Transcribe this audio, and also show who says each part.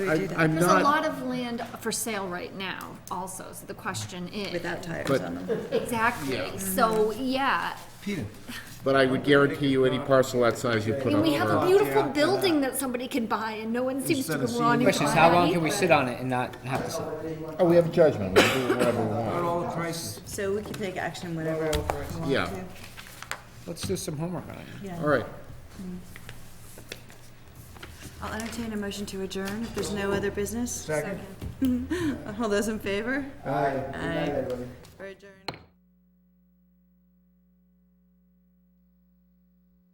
Speaker 1: I-
Speaker 2: that.
Speaker 1: I'm
Speaker 3: There's a
Speaker 1: not,
Speaker 3: lot of land for sale right now also, so the question is.
Speaker 2: without tires
Speaker 1: But-
Speaker 2: on them.
Speaker 1: Yeah.
Speaker 3: Exactly, so, yeah,
Speaker 4: Peter,
Speaker 1: but I would guarantee you any parcel that size you
Speaker 3: I
Speaker 1: put
Speaker 3: mean,
Speaker 1: on
Speaker 3: we
Speaker 1: the
Speaker 3: have a
Speaker 1: lot.
Speaker 3: beautiful building that somebody can buy and no one seems to
Speaker 4: Instead of
Speaker 3: be wanting to
Speaker 5: Question is,
Speaker 3: buy
Speaker 5: how long can we
Speaker 3: it.
Speaker 5: sit on it and not have to sell? it?
Speaker 1: Oh, we have a judgment, we can do whatever we
Speaker 4: on
Speaker 1: want.
Speaker 4: all the prices.
Speaker 2: So we can take action whenever we want
Speaker 1: Yeah.
Speaker 2: to.
Speaker 5: Let's do some homework on it.
Speaker 1: All right,
Speaker 2: I'll entertain a motion to adjourn if there's no other business.
Speaker 4: Second.
Speaker 2: All those in favor?
Speaker 4: Aye.
Speaker 2: Aye. We're adjourned.